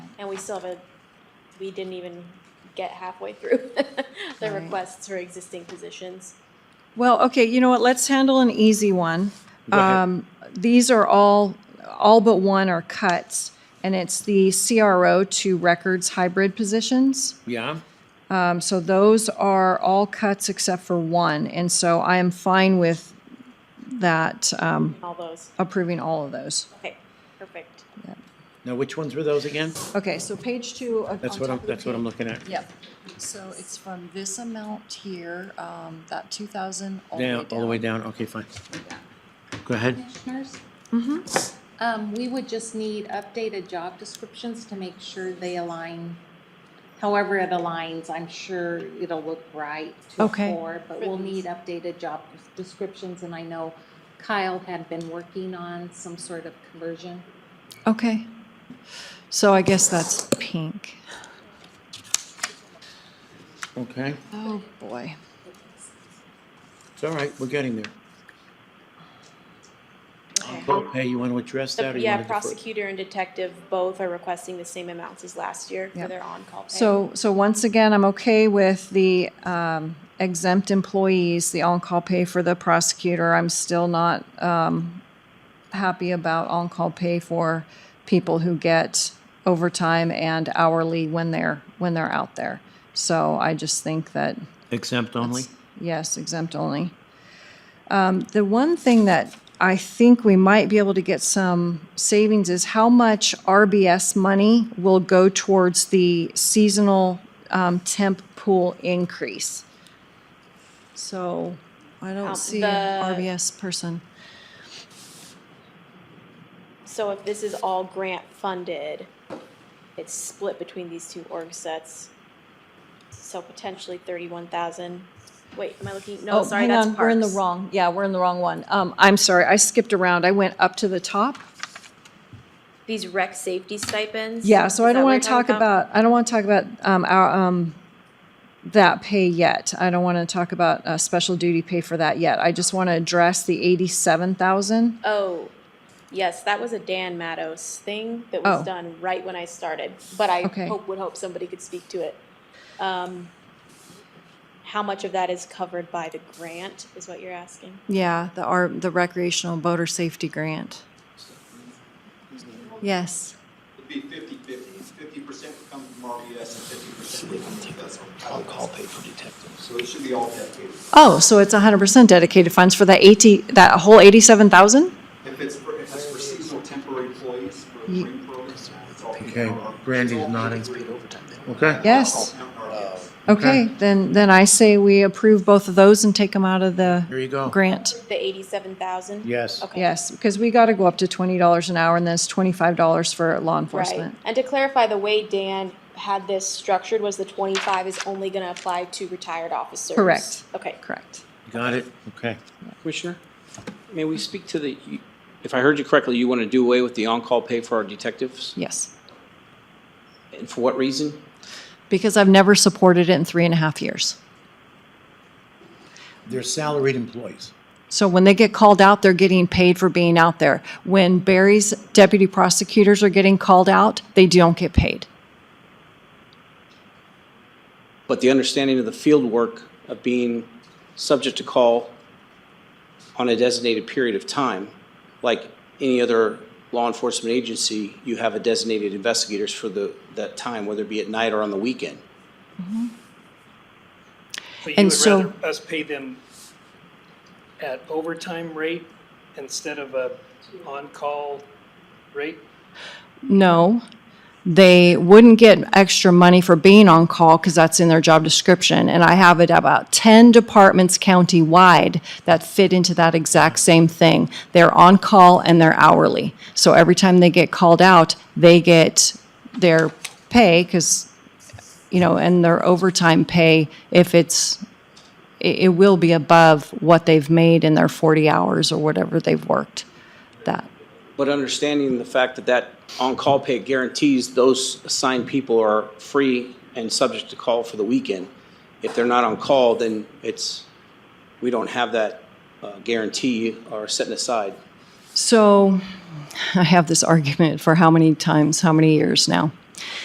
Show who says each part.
Speaker 1: And we still have a, we didn't even get halfway through the
Speaker 2: Right.
Speaker 1: requests for existing positions.
Speaker 2: Well, okay, you know what, let's handle an easy one.
Speaker 3: Go ahead.
Speaker 2: Um, These are all, all but one are cuts, and it's the CRO to records hybrid positions.
Speaker 3: Yeah,
Speaker 2: Um, So those are all cuts except for one, and so I am fine with that, um,
Speaker 1: All those.
Speaker 2: approving all of those.
Speaker 1: Okay, perfect.
Speaker 3: now which ones were those again?
Speaker 2: Okay, so page two. uh,
Speaker 3: That's
Speaker 2: on
Speaker 3: what
Speaker 2: top
Speaker 3: I'm,
Speaker 2: of the
Speaker 3: that's what I'm
Speaker 2: page.
Speaker 3: looking at.
Speaker 2: Yep,
Speaker 4: So it's from this amount here, um, that two thousand all the way
Speaker 3: Down,
Speaker 4: down.
Speaker 3: all the way down, okay, fine. Go ahead.
Speaker 5: Commissioners? Um, we would just need updated job descriptions to make sure they align. However it aligns, I'm sure it'll look right to a
Speaker 2: Okay.
Speaker 5: four, but we'll need updated job descriptions, and I know Kyle had been working on some sort of conversion.
Speaker 2: okay. So I guess that's pink.
Speaker 3: Okay,
Speaker 2: Oh, boy.
Speaker 3: it's all right, we're getting there. Total pay, you want to address that or
Speaker 1: The,
Speaker 3: you
Speaker 1: yeah,
Speaker 3: want to defer?
Speaker 1: prosecutor and detective both are requesting the same amounts as last year for
Speaker 2: Yep.
Speaker 1: their on-call pay.
Speaker 2: So, so once again, I'm okay with the um, exempt employees, the on-call pay for the prosecutor. I'm still not um, happy about on-call pay for people who get overtime and hourly when they're, when they're out there. So I just think that,
Speaker 3: Exempt only?
Speaker 2: yes, exempt only. Um, The one thing that I think we might be able to get some savings is how much RBS money will go towards the seasonal um, temp pool increase. So I
Speaker 1: Um,
Speaker 2: don't see
Speaker 1: the-
Speaker 2: an RBS person.
Speaker 1: So if this is all grant funded, it's split between these two org sets. So potentially thirty-one thousand. Wait, am I looking? No,
Speaker 2: Oh,
Speaker 1: sorry,
Speaker 2: hang
Speaker 1: that's
Speaker 2: on, We're in the
Speaker 1: parks.
Speaker 2: wrong, yeah, we're in the wrong one. Um, I'm sorry, I skipped around. I went up to the top.
Speaker 1: These rec safety stipends.
Speaker 2: Yeah, so
Speaker 1: Is that
Speaker 2: I don't
Speaker 1: what
Speaker 2: want
Speaker 1: you're
Speaker 2: to
Speaker 1: talking
Speaker 2: talk about, I don't want to talk about um, our, um, that pay yet. I don't want to talk about uh, special duty pay for that yet. I just want to address the eighty-seven thousand.
Speaker 1: Oh, yes, that was a Dan Matos thing that was
Speaker 2: Oh.
Speaker 1: done right when I started, but I
Speaker 2: Okay.
Speaker 1: hope, would hope somebody could speak to it. Um, how much of that is covered by the grant is what you're asking?
Speaker 2: Yeah, the our, the recreational boater safety grant. Yes.
Speaker 6: It'd be fifty-fifty. Fifty percent would come from RBS and fifty percent would come from Vessel. I'll call pay for detectives. So it should be all dedicated.
Speaker 2: Oh, so it's hundred percent dedicated funds for that eighty, that whole eighty-seven thousand?
Speaker 6: If it's for, if it's for seasonal temporary employees, for
Speaker 2: Ye-
Speaker 6: spring programs, it's all.
Speaker 3: Okay, Brandy's nodding. Okay,
Speaker 2: Yes.
Speaker 6: Yes.
Speaker 2: Okay, then, then I say we approve both of those and take them out of
Speaker 3: here
Speaker 2: the
Speaker 3: you go.
Speaker 2: grant.
Speaker 1: The eighty-seven thousand?
Speaker 3: Yes.
Speaker 1: Okay.
Speaker 2: Yes, because we got to go up to twenty dollars an hour and then it's twenty-five dollars for law
Speaker 1: Right.
Speaker 2: enforcement.
Speaker 1: And to clarify, the way Dan had this structured was the twenty-five is only gonna apply to retired officers.
Speaker 2: Correct.
Speaker 1: Okay.
Speaker 2: Correct.
Speaker 3: Got it, okay.
Speaker 7: Commissioner, may we speak to the, if I heard you correctly, you want to do away with the on-call pay for our detectives?
Speaker 2: Yes,
Speaker 7: And for what reason?
Speaker 2: because I've never supported it in three and a half years.
Speaker 3: They're salaried employees.
Speaker 2: So when they get called out, they're getting paid for being out there. When Barry's deputy prosecutors are getting called out, they don't get paid.
Speaker 7: But the understanding of the field work of being subject to call on a designated period of time, like any other law enforcement agency, you have a designated investigators for the, that time, whether it be at night or on the weekend.
Speaker 8: But you
Speaker 2: And
Speaker 8: would
Speaker 2: so-
Speaker 8: rather us pay them at overtime rate instead of a on-call rate?
Speaker 2: No, they wouldn't get extra money for being on call because that's in their job description. And I have it about 10 departments countywide that fit into that exact same thing. They're on call and they're hourly. So every time they get called out, they get their pay because, you know, and their overtime pay, if it's, it, it will be above what they've made in their 40 hours or whatever they've worked. That,
Speaker 7: But understanding the fact that that on-call pay guarantees those assigned people are free and subject to call for the weekend. If they're not on call, then it's, we don't have that uh, guarantee or setting aside.
Speaker 2: So I have this argument for how many times, how many years now?